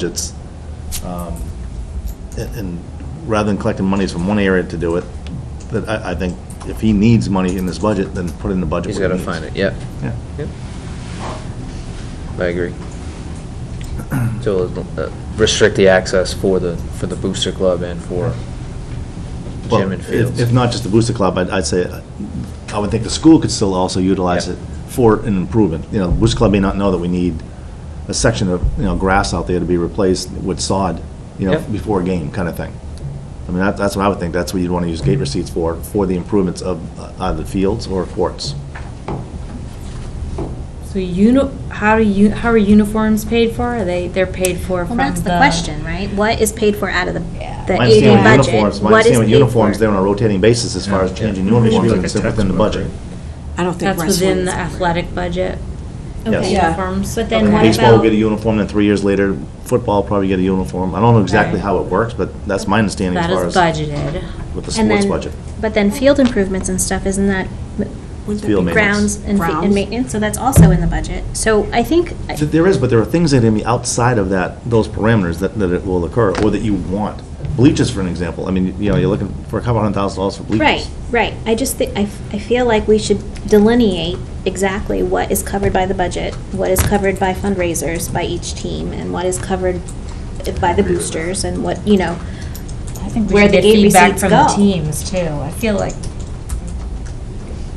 budgets. um, And and rather than collecting monies from one area to do it, that I, I think if he needs money in this budget, then put it in the budget. He's where got he to needs. find it, yep. Yeah. Yep. I agree. So uh, restrict the access for the, for the booster club and for Well, gym and if- fields. If not just the Booster Club, I'd, I'd say, uh, I would think the school could still also utilize Yeah. it for an improvement. You know, Booster Club may not know that we need a section of, you know, grass out there to be replaced with sod, you know, Yeah. before a game, kind of thing. I mean, that, that's what I would think, that's what you'd want to use gate receipts for, for the improvements of uh, either fields or courts. So uni, how do you, how are uniforms paid for? Are they, they're paid for Well, from that's the question, right? What is paid for out of the, the My AD understanding with budget? uniforms, my What is understanding with paid uniforms, for? they're on a rotating basis as far as changing uniforms and it's within the budget. I don't think That's wrestling. within the athletic budget, Yes. Okay. Yeah. uniforms. But then what Baseball will get a about, uniform, then three years later, football will probably get a uniform. I don't know exactly Right. how it works, but that's my understanding as That far is as budgeted. with the and sports then, budget. but then field improvements and stuff, isn't that Wouldn't that Field be- grounds and fe- and Grounds. maintenance? So that's also in the budget. So I think, Th- There is, but there are things that are be outside of that, those parameters that, that it will occur, or that you want. Bleachers, for an example, I mean, you know, you're looking for a couple hundred thousand dollars for bleachers. right, right. I just think, I, f- I feel like we should delineate exactly what is covered by the budget, what is covered by fundraisers by each team, and what is covered by the boosters, and what, you know, I think we Where should the get gate feedback feedback receipts from from the the go. teams teams, too. I feel like.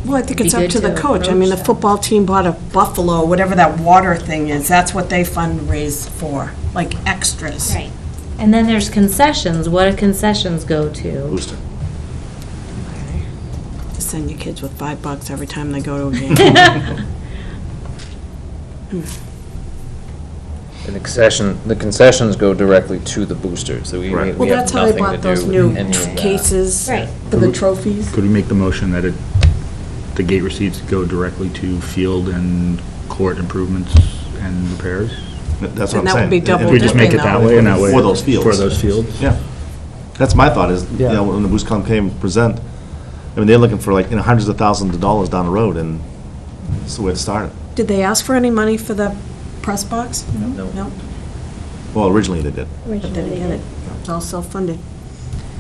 Well, I think Be it's up good to the to coach. I approach mean, the them. football team bought a Buffalo, whatever that water thing is, that's what they fundraise for, like extras. right. And then there's concessions. What do concessions go to? Booster. Send your kids with five bucks every time they go to a game. And the concession, the concessions go directly to the boosters, so we we- we Right. have nothing to do Well, that's how they bought those new with any of that. cases Right. for the trophies. Could we make the motion that it, the gate receipts go directly to field and court improvements and repairs? Th- That's what I'm And saying. that would be And- double If and we just make it dipping, that though. way and that way. For those fields. For those fields? Yeah. That's my thought is, you Yeah. know, when the Boost Club came present, I mean, they're looking for like, you know, hundreds of thousands of dollars down the road and it's the way to start it. Did they ask for any money for the press box? No. No, Well, originally they did. but then again, it- it's all self-funded.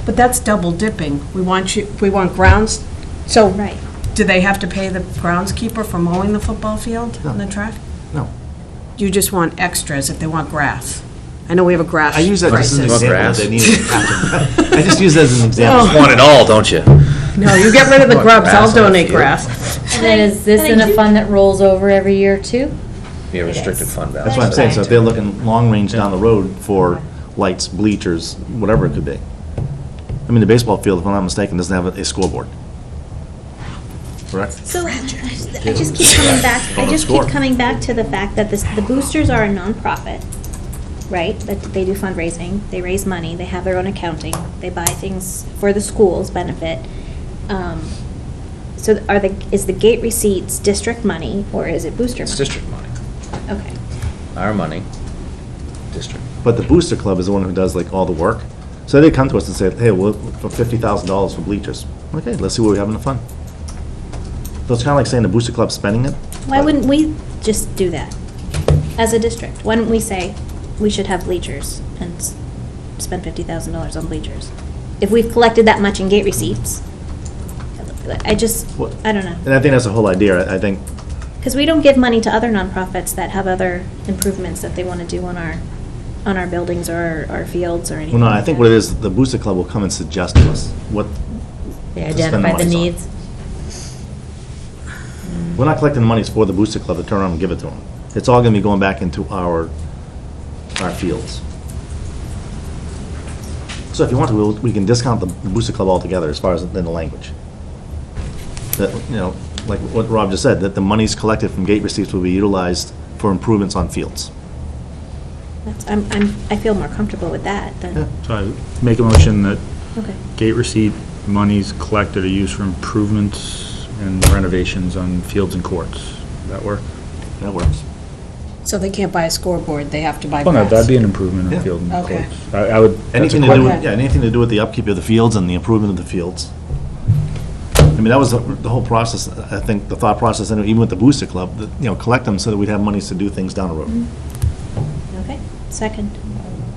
But that's double dipping. We want you, we want grounds, so. Right. Do they have to pay the groundskeeper for mowing the football field and the No. track? No. You just want extras if they want grass. I know we have a grass I use that just as an crisis. Oh. example. that they needed to capture. I just use that as an example. Want it all, don't you? No, you get rid of the grubs, grass I'll on the donate field. grass. And then is this But I in a do- fund that rolls over every year too? Be a restricted fund balance. That's what I'm saying, so if they're looking long-range down the road for lights, bleachers, whatever it could be. I mean, the baseball field, if I'm not mistaken, doesn't have a a scoreboard. Correct? So, I I just keep coming back, I just keep coming back to the fact that this, the boosters are a nonprofit, right? That they do fundraising, they raise money, they have their own accounting, they buy things for the school's benefit. Um, So are the, is the gate receipts district money, or is it booster money? It's district money, Okay, our money, district. But the Booster Club is the one who does like all the work. So they come to us and say, hey, well, for fifty thousand dollars for bleachers. Okay, let's see what we have in the fund. So it's kinda like saying the Booster Club's spending it. why wouldn't we just do that as a district? Why don't we say, we should have bleachers and s- spend fifty thousand dollars on bleachers? If we've collected that much in gate receipts, I just, What- I don't know. And I think that's the whole idea. I I think Because we don't give money to other nonprofits that have other improvements that they want to do on our, on our buildings or our fields or anything. Well, no, I like think that. what it is, the Booster Club will come and suggest to us what, They To spend the identify the monies on. needs. we're not collecting the monies for the Booster Club to turn around and give it to them. It's all gonna be going back into our, our fields. So if you want to, we'll- we can discount the the Booster Club altogether as far as in the language. That, you know, like what Rob just said, that the monies collected from gate receipts will be utilized for improvements on fields. That's- I'm, I'm, I feel more comfortable with that Yeah. than, So I make a motion that okay. gate receipt monies collected are used for improvements and renovations on fields and courts. That work? That works. So they can't buy a scoreboard, they have to buy Well, no, that'd grass. be an improvement Yeah. on field and Okay. courts. I I would. that's a Anything to quick- do, with- yeah, anything to do with the upkeep of the fields and the improvement of the fields. I mean, that was the the whole process, I think, the thought process, and even with the Booster Club, that, you know, collect them so that we'd have monies to do things down the road. Okay, second.